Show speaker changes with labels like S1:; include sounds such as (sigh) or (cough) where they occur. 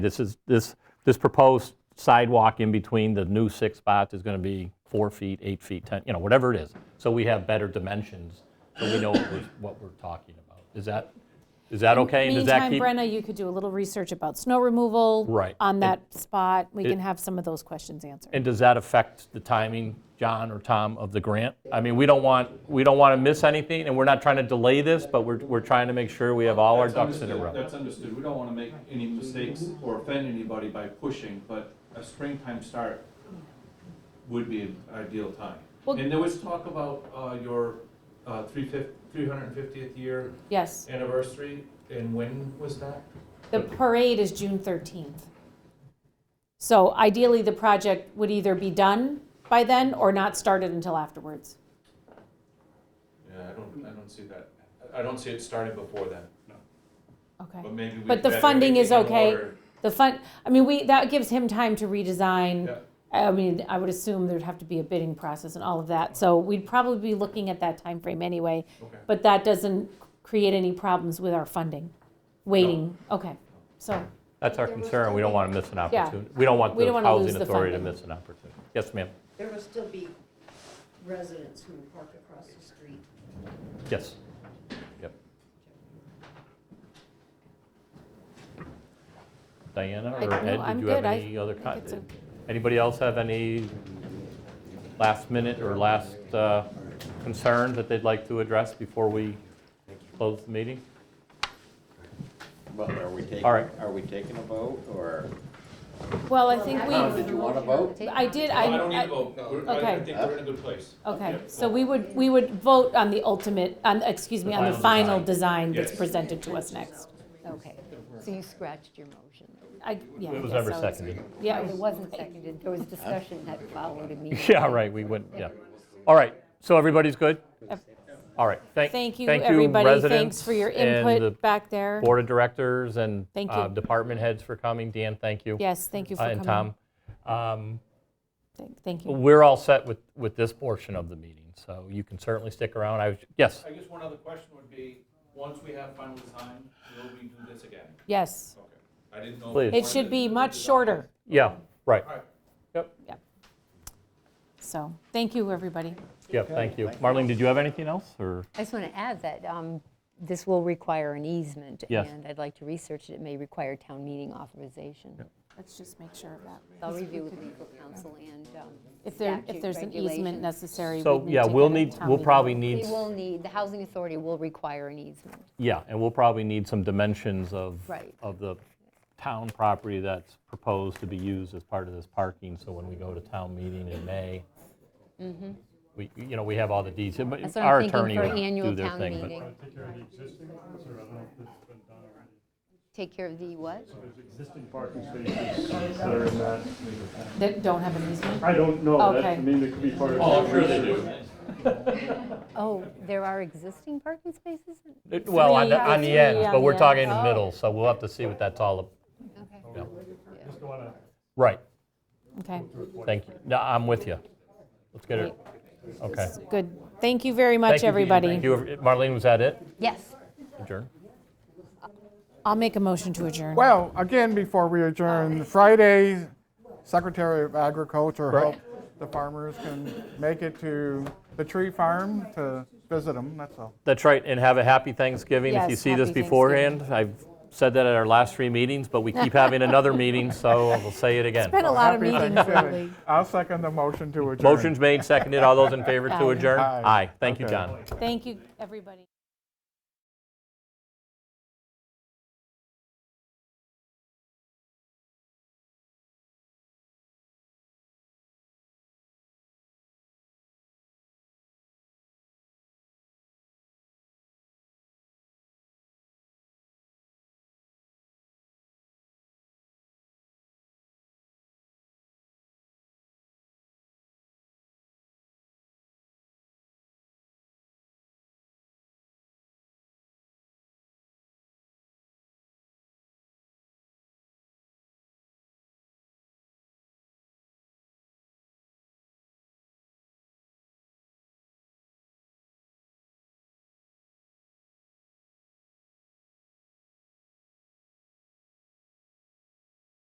S1: This is, this, this proposed sidewalk in between the new six spots is going to be four feet, eight feet, 10, you know, whatever it is. So we have better dimensions, so we know what we're- what we're talking about. Is that, is that okay? And does that
S2: Meantime,
S1: keep-
S2: Brenna, you could do a little research about snow removal.
S1: Right.
S2: On
S1: And-
S2: that spot, we can have some of those questions answered.
S1: And does that affect the timing, John or Tom, of the grant? I mean, we don't want, we don't want to miss anything, and we're not trying to delay this, but we're, we're trying to make sure we have all our
S3: That's
S1: ducks in a
S3: understood-
S1: row.
S3: That's understood, we don't wanna make any mistakes or offend anybody by pushing, but a springtime start would be an ideal time.
S2: Well-
S3: And there was talk about, uh, your, uh, three fif- 350th year
S2: Yes,
S3: anniversary, and when was that?
S2: the parade is June 13th. So ideally, the project would either be done by then or not started until afterwards.
S3: Yeah, I don't, I don't see that, I I don't see it starting before then,
S2: Okay.
S3: but maybe we.
S2: But the
S3: better
S2: funding is
S3: everything in
S2: okay.
S3: order.
S2: The fun, I mean, we, that gives him time to redesign.
S3: Yeah.
S2: I mean, I would assume there'd have to be a bidding process and all of that. So we'd probably be looking at that time frame anyway.
S3: Okay.
S2: But that doesn't create any problems with our funding, waiting, okay, so,
S1: That's our concern, we don't want to miss an
S2: Yeah.
S1: opportunity. We don't want
S2: We
S1: the
S2: don't wanna lose
S1: housing
S2: the
S1: authority to
S2: funding.
S1: miss an opportunity. Yes, ma'am?
S4: There will still be residents who park across the street.
S1: Yes. Yep. Diana
S2: I-
S1: or
S2: no,
S1: Ed,
S2: I'm
S1: did you have
S2: good. I
S1: any other?
S2: think
S1: con-
S2: it's o-
S1: Anybody else have any last minute or last uh, concerns that they'd like to address before we close the meeting?
S5: Well, are we taking,
S1: All right.
S5: are we taking a vote, or?
S2: well, I think
S5: Did
S2: we,
S5: you want to vote?
S2: I did,
S3: No, I don't need
S2: I,
S3: to vote, We're- I I
S2: okay.
S3: think we're in a good place.
S2: I- okay, so we would, we would vote on the ultimate, on, excuse me, on the
S1: The final
S2: final design that's
S3: Yes.
S2: presented to us next.
S6: Okay, so you scratched your motion.
S2: I, yeah. I
S1: It was
S2: guess
S1: never
S2: I would-
S1: seconded.
S2: Yeah,
S6: It wasn't seconded, there was discussion that (laughs) followed immediately.
S1: (laughs) Yeah, right, we went, yeah. All right, so everybody's good?
S2: Ev-
S1: All right, thank,
S2: Thank you,
S1: thank
S2: everybody, thanks
S1: residents
S2: for your
S1: and
S2: input
S1: the
S2: back there.
S1: Board of Directors and
S2: Thank
S1: uh,
S2: you.
S1: department heads for coming. Dan, thank you.
S2: Yes, thank you
S1: Uh,
S2: for
S1: And
S2: coming.
S1: Tom. Um,
S2: Thank- Thank you.
S1: We're all set with, with this portion of the meeting, so you can certainly stick around. I, was yes,
S3: I guess one other question would be, once we have final design, will we do this again?
S2: Yes,
S3: Okay. I didn't know. if
S1: Please.
S3: you
S2: it should
S3: wanted
S2: be
S3: to
S2: much
S3: design.
S2: shorter,
S1: yeah, right.
S3: All right.
S2: so, thank you, everybody.
S1: Yeah, thank you. Marlene, did you have anything else, or?
S6: I just want to add that um, this will require an easement.
S1: Yes.
S6: And I'd like to research it, it may require town meeting authorization.
S2: Let's just make sure of that.
S6: I'll review with legal counsel and um,
S2: If there, if
S6: statute
S2: there's an easement
S6: regulations.
S2: necessary, we
S1: So, yeah, we'll need, we'll probably
S6: We
S1: need,
S6: will need, the housing authority will require an easement.
S1: yeah, and we'll probably need some dimensions of,
S6: Right.
S1: of the town property that's proposed to be used as part of this parking, so when we go to town meeting in May, we, you know, we have all the details,
S6: Mm-hmm. That's
S1: but
S6: what
S1: our
S6: I'm thinking
S1: attorney
S6: for
S1: would do
S6: annual
S1: their
S6: town
S1: thing. but-
S6: meeting.
S7: Take care of the existing ones, or I don't know if
S6: Take
S7: it's been done already.
S6: care of the what?
S7: There's existing parking spaces that are in that.
S2: That don't have an easement?
S7: I don't know, that, I
S2: Okay.
S7: mean, that could be part of.
S3: Oh, I'm sure they do.
S6: Oh, there are existing parking spaces?
S1: It- Well, on the,
S2: Three,
S1: on the
S2: three
S1: ends,
S2: on
S1: but
S2: the
S1: we're
S2: end.
S1: talking in the
S6: Oh.
S1: middle, so we'll have to see what that's all, ab-
S6: Okay.
S7: Just wanna-
S1: right,
S2: Okay,
S1: thank you, no, I'm with you. Let's get it, okay.
S2: good. Thank you very
S1: Thank
S2: much,
S1: you, Thank
S2: everybody.
S1: you, Marlene, was that it?
S6: Yes.
S1: Adjourn?
S2: I'll make a motion to adjourn.
S8: Well, again, before we adjourn, Friday, Secretary of Agriculture
S1: Right.
S8: hope the farmers can make it to the tree farm to visit them, that's all.
S1: That's right, and have a happy Thanksgiving. If you
S2: Yes,
S1: see this
S2: happy
S1: beforehand, I've said that at our last three meetings, but we keep having another meeting, so we'll say it again.
S2: Been a lot of
S8: Happy
S2: meetings
S8: Thanksgiving.
S2: lately.
S8: I'll second the motion to adjourn.
S1: Motion's made, seconded, all those in favor
S2: Aye.
S1: to adjourn?
S8: Aye.
S1: Aye, thank you,
S8: Okay.
S1: John.
S2: Thank you, everybody.